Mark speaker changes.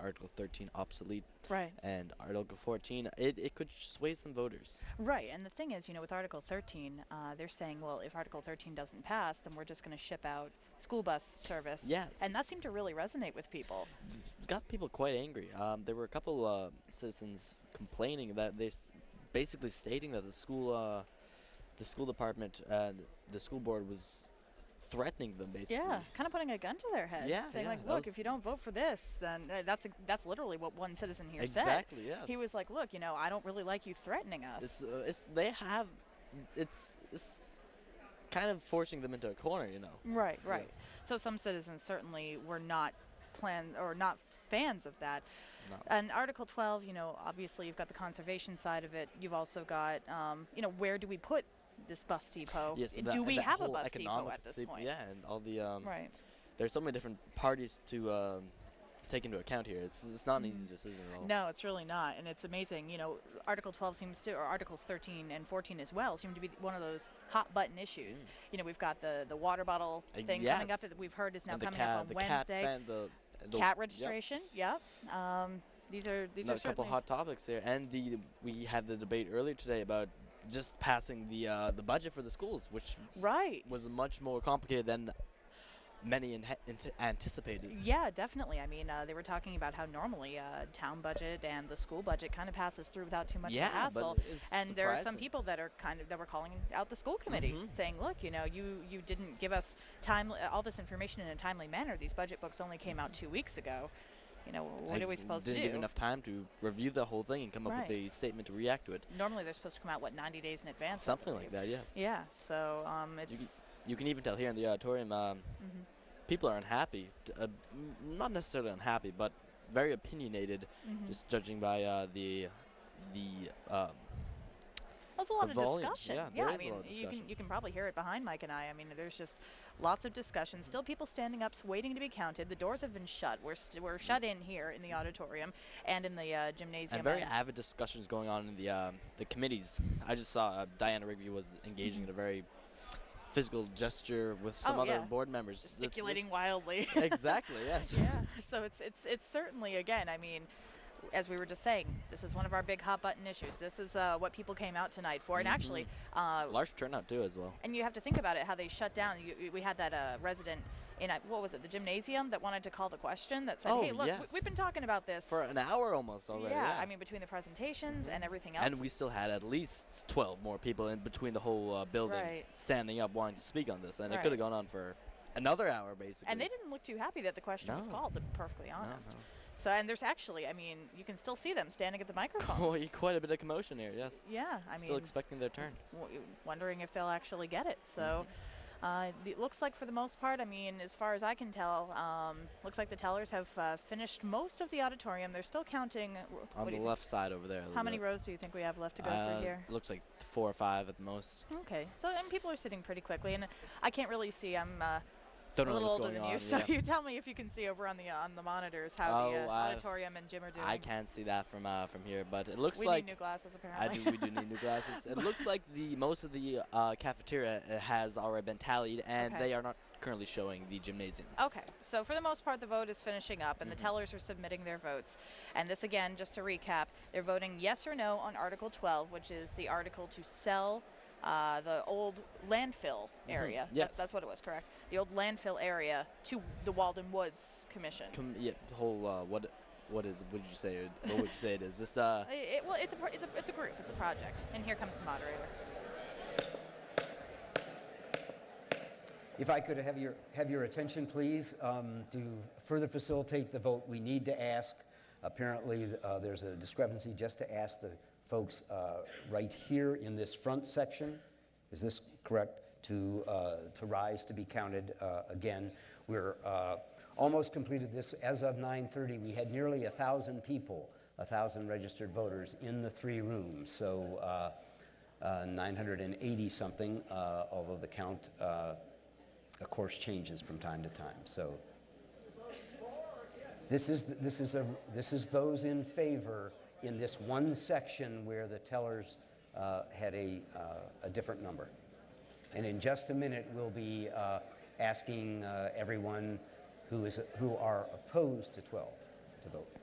Speaker 1: Article 13 obsolete
Speaker 2: Right.
Speaker 1: and Article 14. It, it could sway some voters.
Speaker 2: Right, and the thing is, you know, with Article 13, uh, they're saying, well, if Article 13 doesn't pass, then we're just going to ship out school bus service.
Speaker 1: Yes.
Speaker 2: And that seemed to really resonate with people.
Speaker 1: Got people quite angry. Um, there were a couple uh, citizens complaining that they s- basically stating that the school uh, the school department and the school board was threatening them basically.
Speaker 2: Yeah, kind of putting a gun to their head,
Speaker 1: Yeah,
Speaker 2: saying
Speaker 1: yeah,
Speaker 2: like,
Speaker 1: that
Speaker 2: look,
Speaker 1: was-
Speaker 2: if you don't vote for this, then uh, that's ex- that's literally what one citizen here said.
Speaker 1: Exactly. Yes.
Speaker 2: He was like, look, you know, I don't really like you threatening us.
Speaker 1: It's, uh, it's they have it's it's kind of forcing them into a corner, you know.
Speaker 2: Right,
Speaker 1: Yeah.
Speaker 2: right. So some citizens certainly were not plan or not fans of that.
Speaker 1: No.
Speaker 2: And Article 12, you know, obviously you've got the conservation side of it. You've also got, um, you know, where do we put this bus depot?
Speaker 1: Yes.
Speaker 2: Oh, Do
Speaker 1: and that- and
Speaker 2: we
Speaker 1: that
Speaker 2: have a
Speaker 1: whole
Speaker 2: bus depot
Speaker 1: economic
Speaker 2: at this
Speaker 1: sleep-
Speaker 2: point?
Speaker 1: Yeah, and all the um,
Speaker 2: Right.
Speaker 1: there's so many different parties to um, take into account here. It's, it's not an easy
Speaker 2: Mhm.
Speaker 1: decision at all.
Speaker 2: No, it's really not, and it's amazing. You know, Article 12 seems to, or Articles 13 and 14 as well, seem to be one of those hot button issues.
Speaker 1: Mm.
Speaker 2: You know, we've got the the water bottle
Speaker 1: Uh,
Speaker 2: thing coming
Speaker 1: yes.
Speaker 2: up that we've heard is now
Speaker 1: and the
Speaker 2: coming
Speaker 1: cat,
Speaker 2: up on
Speaker 1: the cat
Speaker 2: Wednesday.
Speaker 1: ban, the and those-
Speaker 2: cat
Speaker 1: yep.
Speaker 2: registration. Yep. Um, these are these
Speaker 1: No,
Speaker 2: are
Speaker 1: a couple
Speaker 2: certainly
Speaker 1: hot topics here, and the we had the debate earlier today about just passing the uh, the budget for the schools, which
Speaker 2: right.
Speaker 1: was much more complicated than many in- anticipated.
Speaker 2: Yeah, definitely. I mean, uh, they were talking about how normally uh, town budget and the school budget kind of passes through without too much of a
Speaker 1: yeah,
Speaker 2: hassle.
Speaker 1: but it's
Speaker 2: and there are some
Speaker 1: surprising.
Speaker 2: people that are kind of that were calling out the school committee,
Speaker 1: Mhm.
Speaker 2: saying, "Look, you know, you you didn't give us time all this information in a timely manner. These budget books only came out two weeks ago. You know, wh- what are we
Speaker 1: Ex-
Speaker 2: supposed
Speaker 1: Mm-hmm. didn't
Speaker 2: to do?
Speaker 1: give enough time to review the whole thing and come up
Speaker 2: Right.
Speaker 1: with a statement to react to it.
Speaker 2: Normally, they're supposed to come out what 90 days in advance. I
Speaker 1: Something
Speaker 2: believe.
Speaker 1: like that, yes.
Speaker 2: Yeah. So um, it's
Speaker 1: can- You can even tell here in the auditorium, um,
Speaker 2: mhm.
Speaker 1: people are unhappy. t- Uh, m- not necessarily unhappy, but very opinionated,
Speaker 2: Mhm.
Speaker 1: just judging by uh, the the um,
Speaker 2: That's a lot
Speaker 1: The
Speaker 2: of
Speaker 1: volume,
Speaker 2: discussion.
Speaker 1: yeah, there
Speaker 2: I
Speaker 1: is a
Speaker 2: mean,
Speaker 1: lot of
Speaker 2: you can
Speaker 1: discussion.
Speaker 2: you can probably hear it behind Mike and I. I mean, there's just lots of discussion.
Speaker 1: Mm-hmm.
Speaker 2: Still, people standing up, s- waiting to be counted. The doors have been shut. We're st- we're shut in here in the auditorium and in the uh, gymnasium.
Speaker 1: Mm-hmm. and very
Speaker 2: and-
Speaker 1: avid discussions going on in the um, the committees. I just saw uh, Diana Rigby was engaging in a very physical gesture with some
Speaker 2: Mm-hmm. Oh,
Speaker 1: other
Speaker 2: yeah.
Speaker 1: board members, It's-
Speaker 2: gesticulating
Speaker 1: it's-
Speaker 2: wildly.
Speaker 1: exactly. Yes.
Speaker 2: yeah. So it's it's it's certainly again. I mean. As we were just saying, this is one of our big hot button issues. This is uh, what people came out tonight for,
Speaker 1: Mm-hmm.
Speaker 2: and actually, uh,
Speaker 1: Large turnout too, as well.
Speaker 2: And you have to think about it, how they shut down. You, you- we had that uh, resident in, uh, what was it, the gymnasium that wanted to call the question that said,
Speaker 1: Oh,
Speaker 2: hey, look,
Speaker 1: yes.
Speaker 2: we, have been talking about this.
Speaker 1: For an hour almost already.
Speaker 2: yeah,
Speaker 1: Yeah,
Speaker 2: I mean, between the presentations
Speaker 1: Mhm.
Speaker 2: and everything else.
Speaker 1: And we still had at least 12 more people in between the whole uh, building
Speaker 2: Right.
Speaker 1: standing up wanting to speak on this. And it
Speaker 2: Right.
Speaker 1: could have gone on for another hour, basically.
Speaker 2: and they didn't look too happy that the question was
Speaker 1: No.
Speaker 2: called, to be perfectly
Speaker 1: No,
Speaker 2: honest.
Speaker 1: no.
Speaker 2: So, and there's actually, I mean, you can still see them standing at the microphones.
Speaker 1: Quite- Quite a bit of commotion here, yes.
Speaker 2: yeah, I
Speaker 1: still
Speaker 2: mean,
Speaker 1: expecting their turn.
Speaker 2: w- wondering if they'll actually get it. So
Speaker 1: Mm-hmm.
Speaker 2: uh, th- it looks like, for the most part, I mean, as far as I can tell, um, looks like the tellers have uh, finished most of the auditorium. They're still counting. wh- what
Speaker 1: On the
Speaker 2: do you think?
Speaker 1: left side over there. a
Speaker 2: How
Speaker 1: little
Speaker 2: many
Speaker 1: bit.
Speaker 2: rows do you think we have left to go
Speaker 1: Uh,
Speaker 2: through here?
Speaker 1: Looks like four or five at the most.
Speaker 2: Okay, so and people are sitting pretty quickly, and I can't really see. I'm uh,
Speaker 1: Don't
Speaker 2: a
Speaker 1: know
Speaker 2: little
Speaker 1: what's
Speaker 2: older
Speaker 1: going
Speaker 2: than
Speaker 1: on.
Speaker 2: you, so
Speaker 1: yeah.
Speaker 2: you tell me if you can see over on the uh, on the monitors how the
Speaker 1: Oh,
Speaker 2: uh,
Speaker 1: I've-
Speaker 2: auditorium and gym are doing.
Speaker 1: I can't see that from uh, from here, but it looks
Speaker 2: we
Speaker 1: like
Speaker 2: need new glasses
Speaker 1: I
Speaker 2: apparently.
Speaker 1: do. We do need new glasses. It looks like the most of the uh, cafeteria uh, has already been tallied, and
Speaker 2: Okay.
Speaker 1: they are not currently showing the gymnasium.
Speaker 2: Okay, so for the most part, the vote is finishing up, and
Speaker 1: Mhm.
Speaker 2: the tellers are submitting their votes. And this again, just to recap, they're voting yes or no on Article 12, which is the article to sell uh, the old landfill
Speaker 1: Mhm,
Speaker 2: area. That-
Speaker 1: yes.
Speaker 2: that's what it was, correct? The old landfill area to the Walden Woods Commission.
Speaker 1: Com- yeah, the whole uh, what what is what did you say? it- What would you say it is? This uh,
Speaker 2: I- it- well, it's a, pro- it's, a, it's a group, it's a project. And here comes the moderator.
Speaker 3: If I could have your, have your attention, please, um, to further facilitate the vote, we need to ask. Apparently, uh, there's a discrepancy just to ask the folks uh, right here in this front section, is this correct, to, uh, to rise to be counted uh, again. We're uh, almost completed this. As of 9:30, we had nearly 1,000 people, 1,000 registered voters in the three rooms. So uh, uh, 980 something, uh, although the count uh, of course, changes from time to time. So this is, this is, a, this is those in favor in this one section where the tellers uh, had a, uh, a different number. And in just a minute, we'll be uh, asking uh, everyone who, is, who are opposed to 12 to vote.